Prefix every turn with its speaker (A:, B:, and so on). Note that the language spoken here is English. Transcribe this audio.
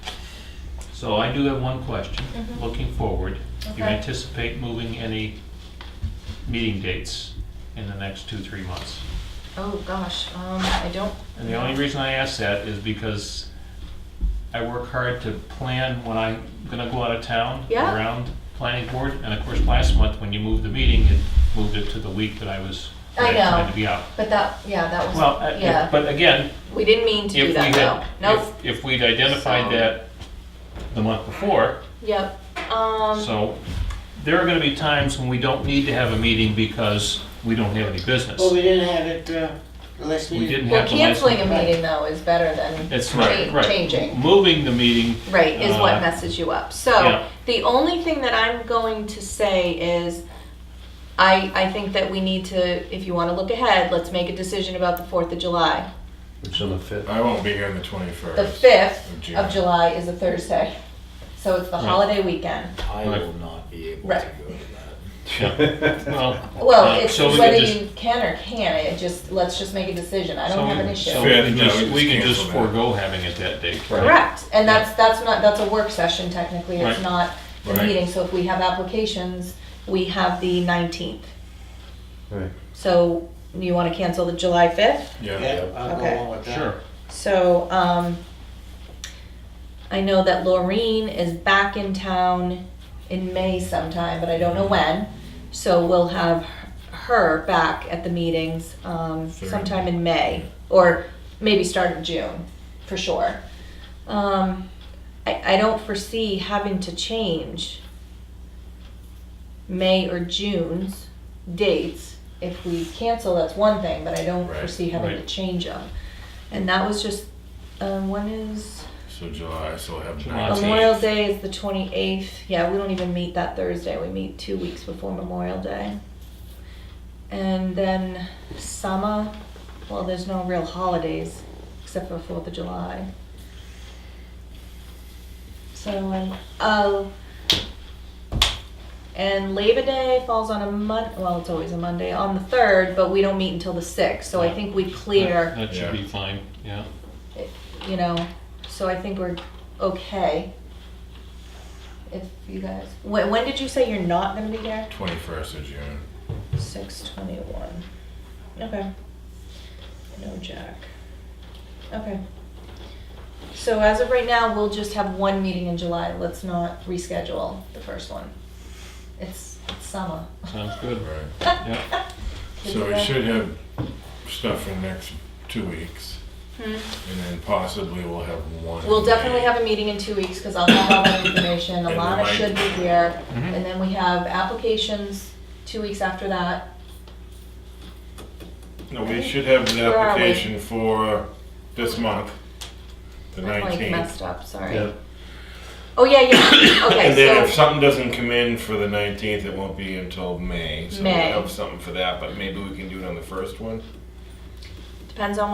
A: So I do have one question,
B: Mhm.
A: looking forward. Do you
B: Okay.
A: anticipate moving any meeting dates in the next two, three months?
B: Oh, gosh, um, I don't.
A: And the only reason I ask that is because I work hard to plan when I'm gonna go out of town
B: Yeah.
A: around planning board. And of course, last month, when you moved the meeting, it moved it to the week that I was
B: I
A: I
B: know.
A: had to be out.
B: But that, yeah, that was,
A: Well, I-
B: yeah.
A: if- but again,
B: We didn't mean to
A: if
B: do
A: we
B: that,
A: had,
B: though. Nope.
A: if, if we'd identified
B: So-
A: that the month before,
B: Yep. Um,
A: So there are going to be times when we don't need to have a meeting because we don't have any
C: Well,
A: business.
C: we didn't have it, uh, unless
A: We
C: we,
A: didn't
B: well,
A: have the license.
B: canceling a meeting, though, is better than
A: That's right,
B: cha-
A: right.
B: changing.
A: Moving the meeting,
B: Right, is
A: Uh,
B: what messes you up.
A: yeah.
B: So, the only thing that I'm going to say is, I, I think that we need to, if you want to look ahead, let's make a decision about the Fourth of July.
D: Which on the fifth.
E: I won't be here on the
B: The
E: 21st.
B: fifth
E: June.
B: of July is a Thursday, so it's the
A: Right.
B: holiday weekend.
F: I
A: Right.
F: will not be able to
B: Right.
F: go to that.
A: well. uh,
B: Well, it's
A: so we
B: whether
A: could just-
B: you can or can't, it just, let's just make a decision, I
A: so
B: don't have
A: we-
B: an
A: So
B: issue.
A: we
E: Fifth,
A: can
E: no, we
A: just,
E: just
A: we can just
E: cancel that.
A: forego having it that day. correct?
B: Correct, and that's, that's not, that's a work session technically, it's
A: Right.
B: not a
E: Right.
B: meeting, so if we have applications, we have the nineteenth.
D: Right.
B: So, you wanna cancel the July fifth?
E: Yeah.
C: yeah, I'll go
B: Okay.
C: along with that.
A: Sure.
B: So, um, I know that Laureen is back in town in May sometime, but I don't know when. So we'll have her back at the meetings, um,
E: Sure.
B: sometime in May, or maybe start of June, for sure. Um, I, I don't foresee having to change May or June's dates. If we cancel, that's one thing, but I don't
E: Right.
B: foresee having to
A: Right.
B: change them. And that was just, um, when is, um,
E: So July, so we'll have
A: July.
E: nine.
B: Memorial Day is the twenty-eighth, yeah, we don't even meet that Thursday, we meet two weeks before Memorial Day. And then summer, well, there's no real holidays, except for Fourth of July. So, and, oh, and Labor Day falls on a Mon, well, it's always a Monday, on the third, but we don't meet until the sixth, so I think we clear
A: That- That should
E: Yeah.
A: be fine, yeah.
B: you know, so I think we're okay. If you guys, when, when did you say you're not gonna be there?
E: 21st of June.
B: Six twenty-one. Okay. No Jack. Okay. So as of right now, we'll just have one meeting in July. Let's not reschedule the first one. It's it's summer.
A: Sounds good.
E: Right.
A: Yeah.
E: So we should have stuff for the next two weeks.
B: Hmm.
E: And then possibly we'll have one.
B: We'll definitely have a meeting in two weeks, because I'll have all the information,
E: And
B: Alana
E: Mike.
B: should be here,
A: Mhm.
B: and then we have applications two weeks after that.
E: No, we should have the
B: Where are we?
E: application for this month, the
B: I'm like
E: 19th.
B: messed up, sorry.
D: Yeah.
B: Oh, yeah, yeah,
E: And then
B: okay,
E: if
B: so,
E: something doesn't come in for the 19th, it won't be until May. So we'll
B: May.
E: have something for that, but maybe we can do it on the first one.
B: depends on